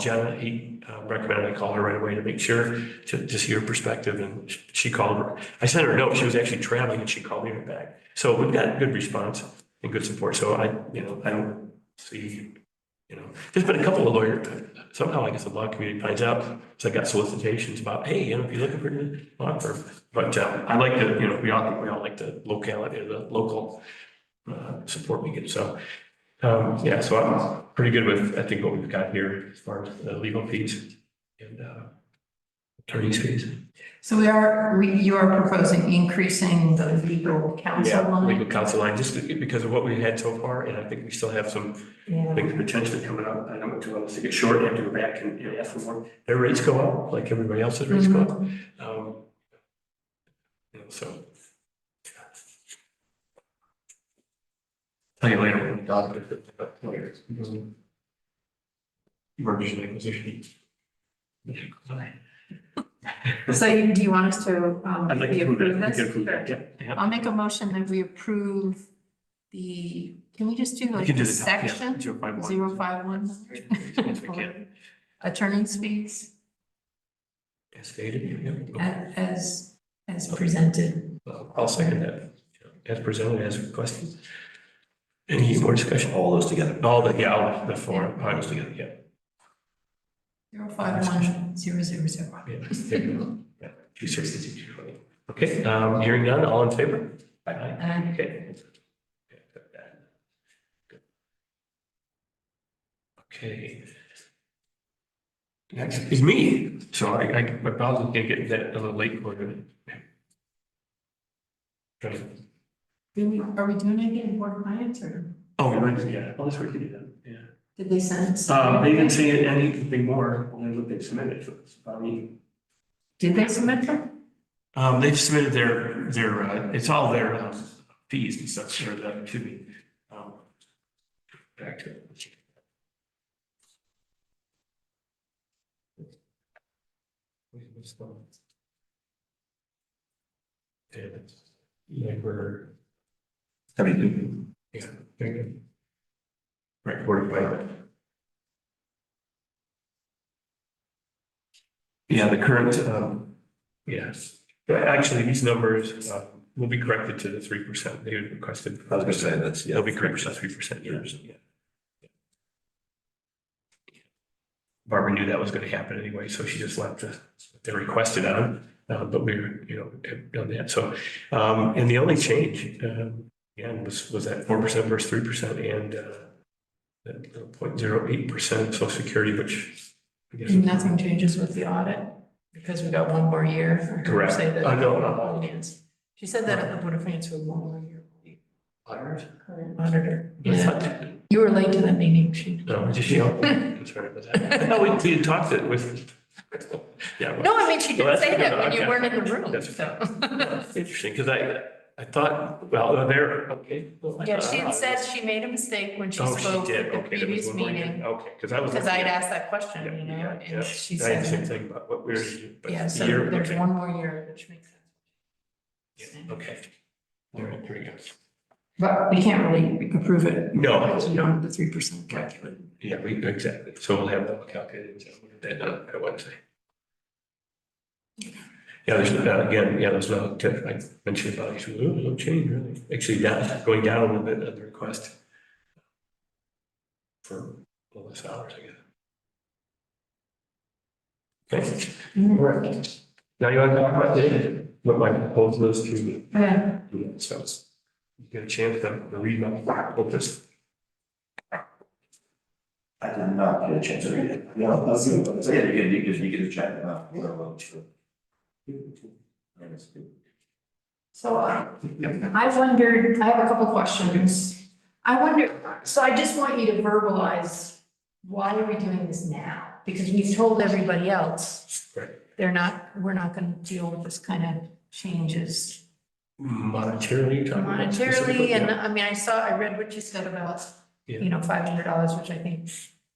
Jenna, he uh, recommended I call her right away to make sure, to, to see her perspective, and sh- she called her. I sent her a note, she was actually traveling, and she called me right back. So we've got good response and good support, so I, you know, I don't see, you know, there's been a couple of lawyers, somehow I guess the law community finds out, so I got solicitations about, hey, you know, if you're looking for a law firm. But uh, I like to, you know, we all, we all like the locality, the local uh, support we get, so. Um, yeah, so I'm pretty good with, I think, what we've got here as far as the legal fees and, uh, attorney's fees. So we are, we- you are proposing increasing the legal counsel line? Legal counsel line, just because of what we had so far, and I think we still have some Yeah. things potentially coming up. I don't want to, to get short, have to go back and and ask for more. Their rates go up, like everybody else's Mm-hmm. rates go up. Um, you know, so. Tell you later. when we talk about it, but later. Mergers and acquisition. So you- do you want us to, um, I'd like we to approve approve that. We can this? approve that. Sure. Yeah, yeah. I'll make a motion that we approve the, can we just do You like can do the the top, yeah, section? 0.1. Zero five one? Yes, we can. Attorney's fees As stated, yeah, yeah. a- as, as presented. Well, I'll second that, as presented, as requested. Any more discussion? all those together. All the, yeah, all the four items together, yeah. Zero five one, zero zero zero. Yeah, there you go. Yeah, 260, 220. Okay, um, hearing none, all in favor? Aye. Uh, Okay. Okay. Next is me, so I, I, my browser's gonna get that a little late for Oh, you. do we- Are we doing any board clients or Oh, right, yeah, oh, that's what you did, that, yeah. did they send? us- Um, they didn't say anything more than what they submitted, so it's probably. Did they submit them? Um, they've submitted their, their, uh, it's all their um, fees and stuff, sure, that could be. um, Back to. it. Wait, what's going on? And, yeah, we're, Seventy-two. yeah, there you go. Right, we're by. Yeah, the current, um, yes, But actually, these numbers, uh, will be corrected to the three percent they had requested. I was gonna say, that's, yeah. They'll be corrected to three percent, yeah. Barbara knew that was gonna happen anyway, so she just left the, they requested on, uh, but we, were, you know, have done that, so. Um, and the only change, um, again, was, was that four percent versus three percent and, uh, the point zero eight percent social security, which. I guess- Nothing changes with the audit because we got one more year. for her to Correct. Say that. Uh, no, no. Finance. She said that at the Board of Finance for one more year. Auditors? Current Auditor. That's Yeah. not- You were late to that meeting, she. No, just, you know, I'm sorry about that. Oh, No, we, we talked it with. Yeah. well- No, I mean, she No, did that's- say that when okay. you weren't in the room. That's so. Interesting, because I, I thought, well, oh, there, okay. well, I Yeah, thought- she had said she made a mistake when she Oh, she spoke did, at the okay, there was previous one more year. meeting. Okay, because I was. Because I looking had at- asked that yeah, question, you yeah, know, yeah. and she I had the same said, thing about what we were. but yeah, the so year- there's okay, one more year, which makes sense. yeah, Okay. All right, here we go. But we can't really approve it. No. Because we don't have the three percent calculated. Yeah, we, exactly. So we'll have that calculated, so we'll get that done by Wednesday. Yeah, there's, uh, again, yeah, there's no, I mentioned about, it, so, oh, no change really. Actually, that, going down a little bit at the request. For a little less hours, I guess. Okay. Mm-hmm. Right. Now you want to talk about the- what my proposal is to Yeah. do that, so. it's- You get a chance to to read my, hope this. I did not get a chance to read it. No, I was gonna- so, yeah, you can, you can, you can check it out. Well, well, sure. And it's good. So I, I wondered, I have a couple questions. I wonder, so I just want you to verbalize, why are we doing this now? Because we've told everybody else. Right. They're not, we're not gonna deal with this kind of changes Monetarily. you're talking about specifically, monetarily, yeah. and I mean, I saw, I read what you said about, Yeah. you know, five hundred dollars, which I think,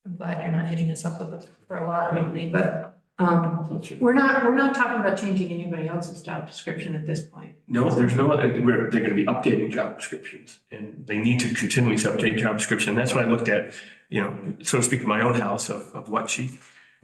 I'm glad you're not hitting us up with it for a lot lately, but, um, we're not, we're not talking about changing anybody else's job description at this point. No, there's no, other- we're, they're gonna be updating job descriptions and they need to continuously update job description. That's what I looked at, you know, so to speak, in my own house of, of what she